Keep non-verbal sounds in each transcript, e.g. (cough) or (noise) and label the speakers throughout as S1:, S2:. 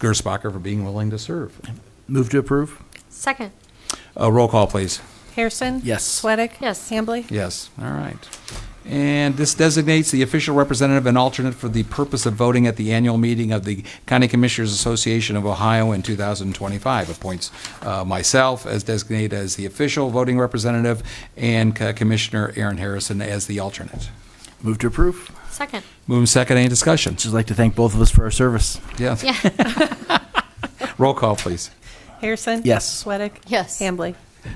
S1: Gerspacher for being willing to serve.
S2: Move to approve?
S3: Second.
S1: Uh, Roll call, please.
S4: Harrison?
S2: Yes.
S4: Sweattick?
S3: Yes.
S4: Hambley?
S1: Yes, all right. And this designates the official representative and alternate for the purpose of voting at the annual meeting of the County Commissioners Association of Ohio in 2025. Appoints uh, myself as designated as the official voting representative and Co- Commissioner Aaron Harrison as the alternate.
S2: Move to approve?
S4: (laughs)
S3: Second.
S1: Move in second, any discussion?
S2: Just like to thank both of us for our service.
S1: Yes,
S3: Yeah.
S1: roll call, please.
S4: Harrison?
S2: Yes.
S4: Sweattick?
S3: Yes.
S4: Hambley?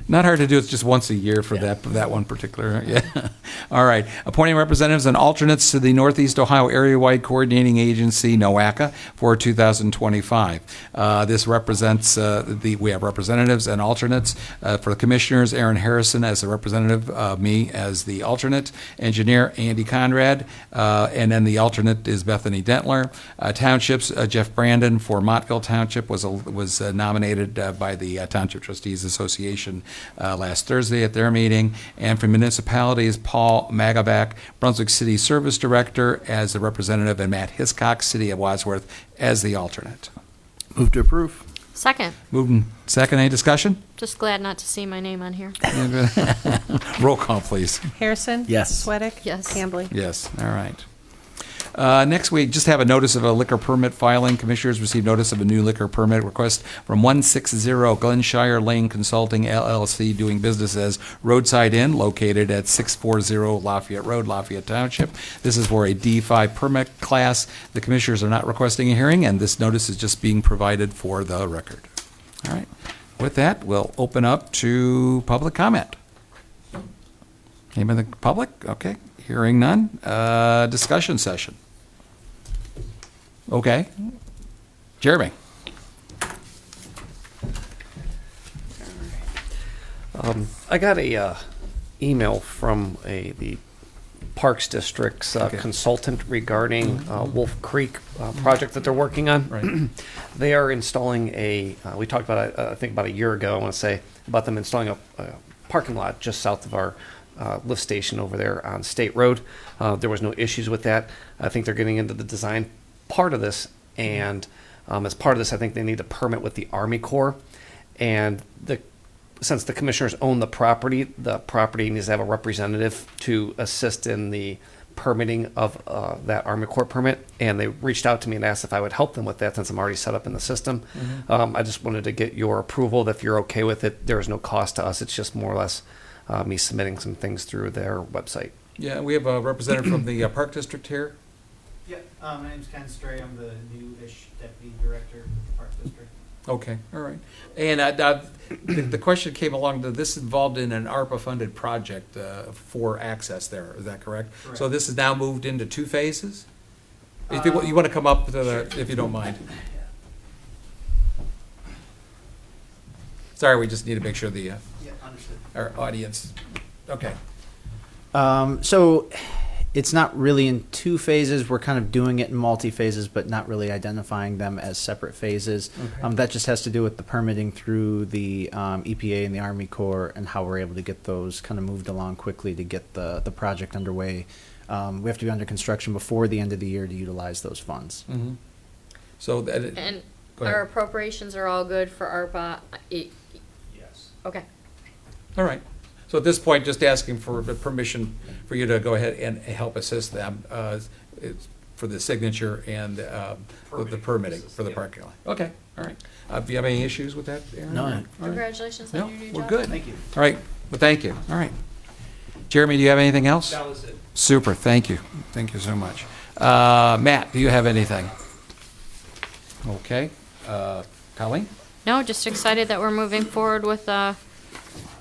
S1: Not hard to do. It's just once a year for that that one particular. (laughs) Yeah. All right. Appointing representatives and alternates to the Northeast Ohio Area Wide Coordinating Agency (NOACA) for 2025. Uh, this represents uh, the we have representatives and alternates uh, for the commissioners. Aaron Harrison as the representative, uh, me as the alternate, engineer Andy Conrad, uh, and then the alternate is Bethany Dentler. Uh, townships uh, Jeff Brandon for Montville Township was a, was uh, nominated uh, by the uh, Township Trustees Association uh, last Thursday at their meeting, and for municipalities Paul Magavac, Brunswick City Service Director, as the representative, and Matt Hiscock, City of Wadsworth, as the alternate.
S2: Move to approve?
S3: Second.
S1: Moved and second. Any discussion?
S3: Just glad not to see my name on here.
S1: Roll call, please.
S4: Harrison?
S2: Yes.
S4: Sweattick?
S3: Yes.
S4: Hambley?
S1: Yes, all right. Uh, Next, we just have a notice of a liquor permit filing. Commissioners received notice of a new liquor permit request from 160 Glenshire Lane Consulting LLC, doing business as Roadside Inn, located at 640 Lafayette Road, Lafayette Township. This is for a D5 permit class. The commissioners are not requesting a hearing, and this notice is just being provided for the record. All right. With that, we'll open up to public comment. Anybody in the public? Okay, hearing none. Uh, Discussion session. Okay. Jeremy?
S5: I got a uh, email from a the Parks District's uh,
S1: Okay. Mm-hmm.
S5: consultant regarding uh, Wolf Creek uh, project that they're working on.
S1: Right.
S5: (clears throat) they are installing a. Uh, we talked about it, uh, I think about a year ago. I want to say about them installing a, a parking lot just south of our. Uh, lift station over there on State Road. Uh, there was no issues with that. I think they're getting into the design part of this, and um, as part of this, I think they need a permit with the Army Corps. And the since the commissioners own the property, the property needs to have a representative to assist in the permitting of uh, that Army Corps permit. And they reached out to me and asked if I would help them with that since I'm already set up in the system. Um, I just wanted to get your approval that if you're okay with it, there is no cost to us. It's just more or less uh, me submitting some things through their website.
S1: Yeah, we have a representative from the uh, Park District here.
S6: Yeah, uh, my name's Ken Stray. I'm the new-ish deputy director of the Park District.
S1: Okay, all right. And I- I- the the question came along, that this involved in an ARPA-funded project uh, for access there, is that correct? So
S6: Correct.
S1: this is now moved into two phases? If you wa- you want to come up, to the- if you don't mind. Sorry, we just need to make sure the, uh,
S6: Yeah, understood.
S1: our audience, okay.
S6: Um, so it's not really in two phases. We're kind of doing it in multi phases, but not really identifying them as separate phases. Um, that just has to do with the permitting through the um, EPA and the Army Corps and how we're able to get those kind of moved along quickly to get the, the project underway. Um, we have to be under construction before the end of the year to utilize those funds.
S1: So that, it-
S3: And
S1: Go ahead.
S3: our appropriations are all good for ARPA. Yes. Okay.
S1: all right. So at this point, just asking for the permission for you to go ahead and help assist them uh, it's for the signature and um, with the permitting for the parking lot. Okay, all right. Uh, Do you have any issues with that, Aaron?
S2: No.
S1: All right.
S3: Congratulations
S1: No,
S3: on your new job.
S1: we're good.
S6: Thank you.
S1: All right, well, thank you. All right. Jeremy, do you have anything else? That was it. Super, thank you. Thank you so much. Uh, Matt, do you have anything? Okay. Uh, Colleen?
S3: No, just excited that we're moving forward with a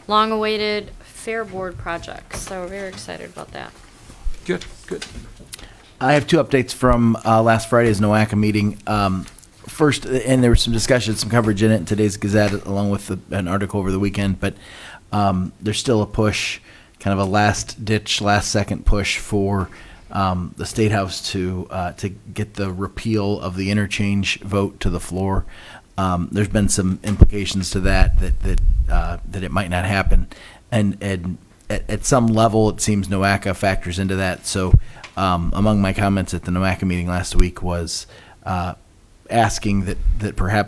S3: long-awaited Fair Board project. So we're very excited about that.
S1: Good, good.
S2: I have two updates from uh, last Friday's NOACA meeting. Um, first, and there was some discussion, some coverage in it in today's Gazette, along with the, an article over the weekend. But um, there's still a push, kind of a last ditch, last second push for um, the State House to uh, to get the repeal of the interchange vote to the floor. Um, there's been some implications to that that that uh, that it might not happen, and and at, at some level, it seems NOACA factors into that. So, um, among my comments at the NOACA meeting last week was uh, asking that, that perhaps